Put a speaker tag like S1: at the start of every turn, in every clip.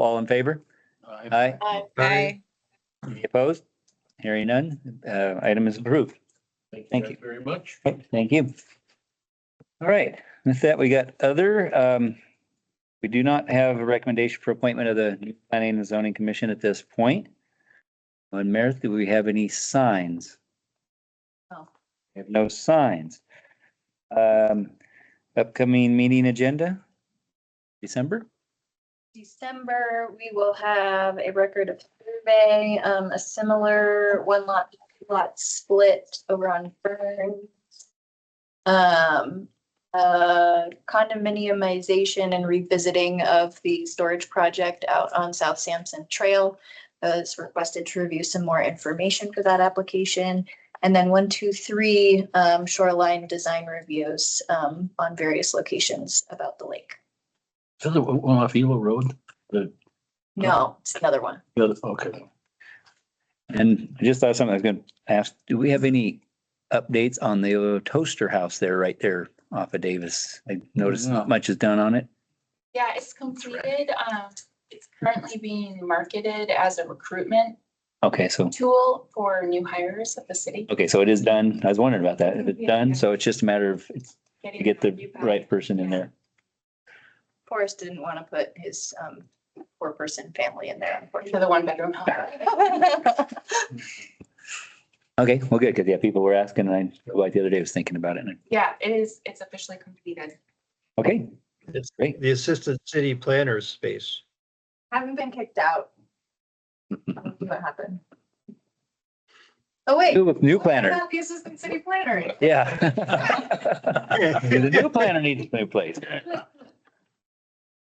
S1: All in favor? Aye.
S2: Aye.
S3: Aye.
S1: Any opposed? Hearing none, uh, item is approved. Thank you.
S4: guys Very much.
S1: Right, Thank you. All right, with that, we got other, um, we do not have a recommendation for appointment of the new planning and zoning commission at this point. On Meredith, do we have any signs?
S2: No.
S1: We have no signs. Um, upcoming meeting agenda, December?
S2: December, we will have a record of survey, um, a similar one lot, lot split over on Fern. Um, uh, condominiumization and revisiting of the storage project out on South Sampson Trail. Uh, it's requested to review some more information for that application. And then one, two, three, um, shoreline design reviews, um, on various locations about the lake.
S4: Is it one off Eagle Road?
S2: No, it's another one.
S4: The other- Okay.
S1: And I just thought something I was gonna ask, do we have any updates on the toaster house there, right there off of Davis? I noticed
S4: No.
S1: not much is done on it.
S5: Yeah, it's completed. Um, it's currently being marketed as a recruitment
S1: Okay, so,
S5: tool for new hires at the city.
S1: okay, so it is done. I was wondering about that. If it's done, so it's just a matter of it's to get
S5: new
S1: the
S5: people.
S1: right person in there.
S2: Forrest didn't want to put his um four person family in there,
S5: For
S2: unfortunately.
S5: the one bedroom help.
S1: Okay, well, good, because yeah, people were asking and I, like the other day, I was thinking about it. and I-
S5: Yeah, it is, it's officially completed.
S1: Okay,
S6: It's
S1: great.
S6: the assistant city planner's space.
S2: Haven't been kicked out. I'll see What happened? Oh, wait.
S1: New, new
S2: What
S1: planner,
S2: about The assistant city planner.
S1: yeah. The new planner needs a new place.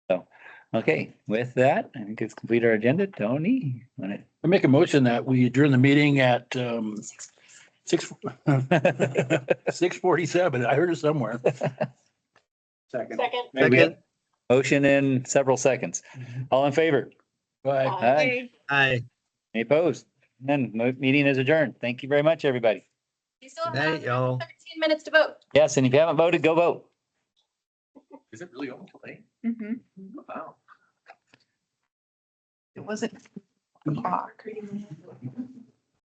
S1: So, okay, with that, I think it's complete our agenda. Tony, want to
S4: I make a motion that we adjourn the meeting at um six, six forty-seven. I heard it somewhere.
S6: Second.
S3: Second.
S6: Second,
S1: Motion in several seconds. All in favor?
S4: Bye.
S1: Aye.
S6: aye.
S1: Any opposed? None. Mo- meeting is adjourned. Thank you very much, everybody.
S2: You still have
S6: Good night, y'all.
S2: thirteen minutes to vote.
S1: Yes, and if you haven't voted, go vote.
S4: Is it really open today?
S5: Mm-hmm.
S4: Wow.
S2: It wasn't.